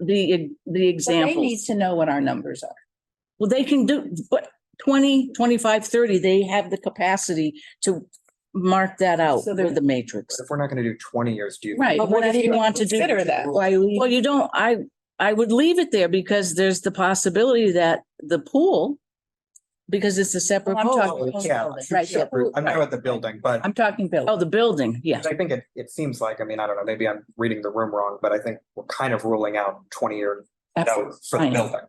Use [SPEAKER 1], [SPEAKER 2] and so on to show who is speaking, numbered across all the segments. [SPEAKER 1] the, the
[SPEAKER 2] But They
[SPEAKER 1] examples.
[SPEAKER 2] need to know what our numbers are.
[SPEAKER 1] Well, they can do, but 20, 25, 30. they have the capacity to mark that out
[SPEAKER 2] So
[SPEAKER 1] with
[SPEAKER 2] they're-
[SPEAKER 1] the matrix.
[SPEAKER 3] If we're not gonna do twenty years, do you?
[SPEAKER 2] Right.
[SPEAKER 1] But what if you want to do-
[SPEAKER 2] Consider that.
[SPEAKER 4] Why we,
[SPEAKER 1] Well, you don't, I, I would leave it there because there's the possibility that the pool, because it's a separate
[SPEAKER 2] Well, I'm
[SPEAKER 1] pool.
[SPEAKER 2] talking-
[SPEAKER 3] Oh, Yeah.
[SPEAKER 2] Right, Um, yeah.
[SPEAKER 3] separate- I'm not about the building, but
[SPEAKER 2] I'm talking Bill.
[SPEAKER 1] Oh, the building, yes.
[SPEAKER 3] I think it, it seems like, I mean, I don't know, maybe I'm reading the room wrong, but I think we're kind of ruling out twenty year notes for the
[SPEAKER 1] Fine.
[SPEAKER 3] building.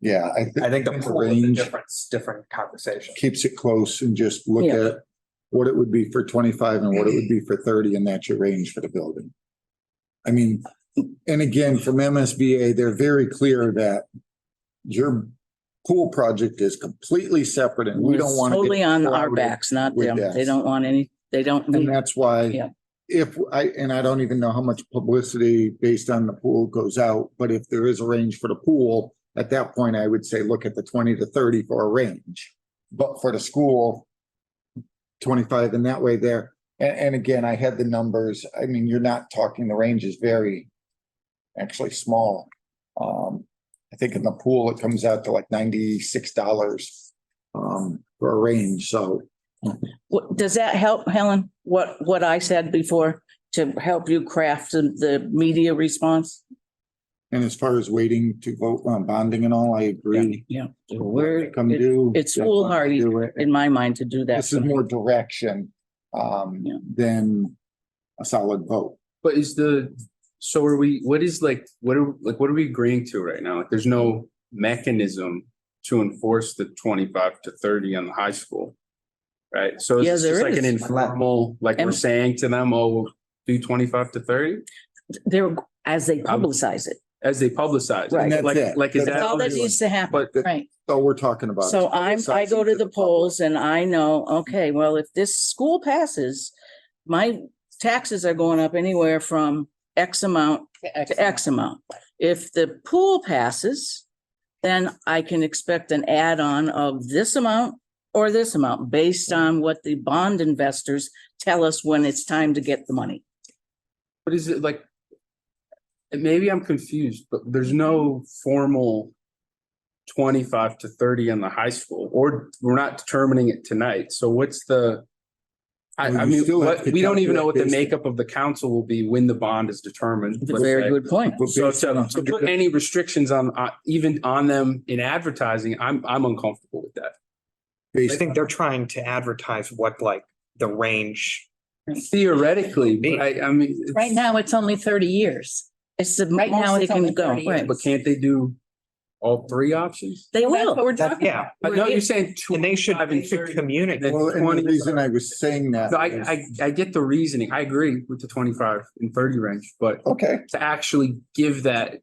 [SPEAKER 4] yeah, I
[SPEAKER 3] I think the
[SPEAKER 4] think the
[SPEAKER 3] pool is a
[SPEAKER 4] range
[SPEAKER 3] different, different conversation.
[SPEAKER 4] keeps it close and just look
[SPEAKER 1] Yeah.
[SPEAKER 4] at what it would be for twenty-five and what it would be for thirty, and that's your range for the building. I mean, and again, from MSBA, they're very clear that your pool project is completely separate and we don't
[SPEAKER 1] It's
[SPEAKER 4] want to. get
[SPEAKER 1] Totally on our
[SPEAKER 4] clouded.
[SPEAKER 1] backs, not
[SPEAKER 4] with
[SPEAKER 1] them. They
[SPEAKER 4] this.
[SPEAKER 1] don't want any, they don't.
[SPEAKER 4] And
[SPEAKER 1] need-
[SPEAKER 4] that's why
[SPEAKER 1] Yeah.
[SPEAKER 4] if I, and I don't even know how much publicity based on the pool goes out, but if there is a range for the pool, at that point, I would say, look at the twenty to thirty for a range. But for the school, twenty-five and that way there. And, and again, I had the numbers. I mean, you're not talking, the range is very actually small. Um, I think in the pool, it comes out to like ninety-six dollars um, for a range. So
[SPEAKER 1] What, does that help, Helen? What, what I said before to help you craft the, the media response?
[SPEAKER 4] And as far as waiting to vote on bonding and all, I agree.
[SPEAKER 1] Yeah.
[SPEAKER 4] So
[SPEAKER 1] We're,
[SPEAKER 4] Come do.
[SPEAKER 1] it's
[SPEAKER 4] that's fine,
[SPEAKER 1] foolhardy
[SPEAKER 4] do it.
[SPEAKER 1] in my mind to do that.
[SPEAKER 4] This is more direction, um,
[SPEAKER 1] Yeah.
[SPEAKER 4] than a solid vote.
[SPEAKER 5] But is the, so are we, what is like, what are, like, what are we agreeing to right now? Like, there's no mechanism to enforce the twenty-five to thirty on the high school. Right? So
[SPEAKER 1] Yeah,
[SPEAKER 5] it's
[SPEAKER 1] there
[SPEAKER 5] just like an
[SPEAKER 1] is.
[SPEAKER 5] informal, like we're
[SPEAKER 1] And-
[SPEAKER 5] saying to them, oh, we'll do twenty-five to thirty
[SPEAKER 1] They're, as they
[SPEAKER 4] Um,
[SPEAKER 1] publicize it.
[SPEAKER 5] as they publicize. it.
[SPEAKER 1] Right. And
[SPEAKER 4] that's
[SPEAKER 5] Like,
[SPEAKER 4] it.
[SPEAKER 5] like, is
[SPEAKER 4] That's
[SPEAKER 5] that?
[SPEAKER 1] That's all that needs to happen.
[SPEAKER 5] But
[SPEAKER 2] Right.
[SPEAKER 4] So we're talking about.
[SPEAKER 1] So I'm, I go to the polls
[SPEAKER 4] polls.
[SPEAKER 1] and I know, okay, well, if this school passes, my taxes are going up anywhere from X amount to X amount. If the pool passes, then I can expect an add-on of this amount or this amount based on what the bond investors tell us when it's time to get the money.
[SPEAKER 5] But is it like? and Maybe I'm confused, but there's no formal. Twenty-five to thirty in the high school, or we're not determining it tonight, so what's the? I,
[SPEAKER 4] Well,
[SPEAKER 5] I
[SPEAKER 4] you
[SPEAKER 5] mean,
[SPEAKER 4] still have
[SPEAKER 5] what-
[SPEAKER 4] to
[SPEAKER 5] we don't even know what the
[SPEAKER 4] calculate based-
[SPEAKER 5] makeup of the council will be when the bond is determined. let's
[SPEAKER 1] Very
[SPEAKER 5] say.
[SPEAKER 1] good point.
[SPEAKER 4] But
[SPEAKER 5] So
[SPEAKER 4] based on
[SPEAKER 5] to, to put
[SPEAKER 4] 100
[SPEAKER 5] any restrictions on, uh, even on them in advertising, I'm, I'm uncomfortable with that.
[SPEAKER 3] I
[SPEAKER 4] based-
[SPEAKER 3] think they're trying to advertise what like the range.
[SPEAKER 5] Theoretically, but I, I mean. it's-
[SPEAKER 2] Right now, it's only thirty years.
[SPEAKER 1] It's the
[SPEAKER 2] Right now,
[SPEAKER 1] most they
[SPEAKER 2] it's
[SPEAKER 1] can
[SPEAKER 2] only
[SPEAKER 1] go.
[SPEAKER 2] 30.
[SPEAKER 1] Right.
[SPEAKER 5] But can't they do all three options?
[SPEAKER 1] They
[SPEAKER 2] Well, that's what
[SPEAKER 1] will.
[SPEAKER 2] We're
[SPEAKER 3] That,
[SPEAKER 2] talking
[SPEAKER 3] yeah,
[SPEAKER 2] about.
[SPEAKER 5] I know you're saying.
[SPEAKER 3] and they should
[SPEAKER 5] 25 and 30.
[SPEAKER 3] communicate.
[SPEAKER 4] Well, and the reason I was saying that.
[SPEAKER 5] No, I,
[SPEAKER 4] is-
[SPEAKER 5] I, I get the reasoning. I agree with the twenty-five and thirty range, but
[SPEAKER 4] Okay,
[SPEAKER 5] to actually give that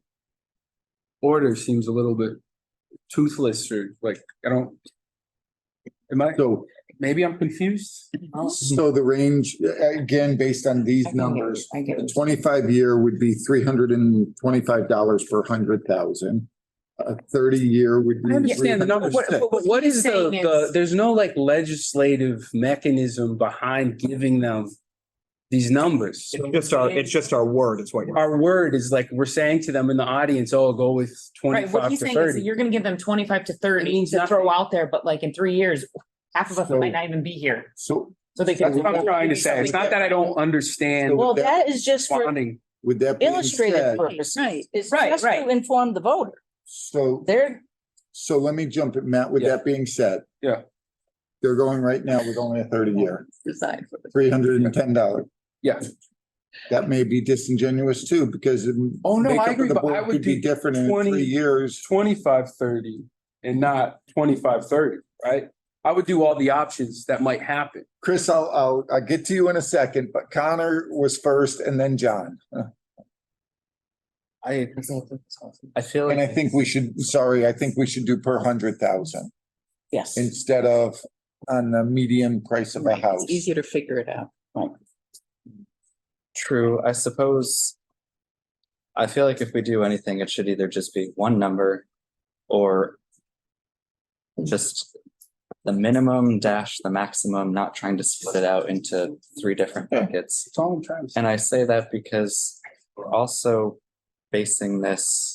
[SPEAKER 5] order seems a little bit toothless or like, I don't. Am I,
[SPEAKER 4] so,
[SPEAKER 5] maybe I'm confused?
[SPEAKER 4] so the range, uh, again, based on these numbers, A twenty-five year would be three hundred and twenty-five dollars per hundred thousand. A thirty-year would be.
[SPEAKER 5] I understand the numbers, but
[SPEAKER 4] 306.
[SPEAKER 5] but what is the,
[SPEAKER 2] Saying
[SPEAKER 5] the,
[SPEAKER 2] it's-
[SPEAKER 5] there's no like legislative mechanism behind giving them these numbers. So
[SPEAKER 3] It's just our, it's just our word is what you're.
[SPEAKER 5] Our word is like, we're saying to them in the audience, oh, go with
[SPEAKER 6] Right, what
[SPEAKER 5] twenty-five to
[SPEAKER 6] he's saying is
[SPEAKER 5] thirty.
[SPEAKER 6] that you're gonna give them twenty-five to thirty
[SPEAKER 5] means
[SPEAKER 6] to
[SPEAKER 5] nothing.
[SPEAKER 6] throw out there, but like in three years, half of us
[SPEAKER 4] So-
[SPEAKER 6] might not even be here,
[SPEAKER 4] So
[SPEAKER 6] so they
[SPEAKER 5] That's
[SPEAKER 6] can.
[SPEAKER 5] what I'm trying to say. It's not that I don't understand
[SPEAKER 1] Well, that is just for
[SPEAKER 5] bonding.
[SPEAKER 4] with that being
[SPEAKER 1] illustrative
[SPEAKER 4] said,
[SPEAKER 1] purposes.
[SPEAKER 2] Right.
[SPEAKER 1] It's
[SPEAKER 6] Right,
[SPEAKER 1] just to
[SPEAKER 6] right.
[SPEAKER 1] inform the voter.
[SPEAKER 4] so,
[SPEAKER 1] They're,
[SPEAKER 4] so let me jump it, Matt, with
[SPEAKER 5] Yeah.
[SPEAKER 4] that being said.
[SPEAKER 5] Yeah.
[SPEAKER 4] They're going right now with only a thirty year,
[SPEAKER 2] Decide.
[SPEAKER 4] three hundred and ten dollars.
[SPEAKER 5] Yeah.
[SPEAKER 4] That may be disingenuous too, because. it-
[SPEAKER 5] Oh, no, I
[SPEAKER 4] makeup of
[SPEAKER 5] agree,
[SPEAKER 4] the
[SPEAKER 5] but
[SPEAKER 4] board
[SPEAKER 5] I would
[SPEAKER 4] could be
[SPEAKER 5] do
[SPEAKER 4] Different in
[SPEAKER 5] 20
[SPEAKER 4] three years.
[SPEAKER 5] Twenty-five thirty and not twenty-five thirty, right? I would do all the options that might happen.
[SPEAKER 4] Chris, I'll, I'll, I'll get to you in a second, but Connor was first and then John.
[SPEAKER 5] I, I feel
[SPEAKER 4] And I think we should, sorry, I think we should do per hundred thousand
[SPEAKER 1] yes.
[SPEAKER 4] instead of on the median price of a house.
[SPEAKER 2] It's easier to figure it out.
[SPEAKER 7] True, I suppose. I feel like if we do anything, it should either just be one number or. Just the minimum dash the maximum, not trying to split it out into three different
[SPEAKER 4] Yeah.
[SPEAKER 7] buckets.
[SPEAKER 5] That's all I'm trying to say.
[SPEAKER 7] And I say that because we're also basing this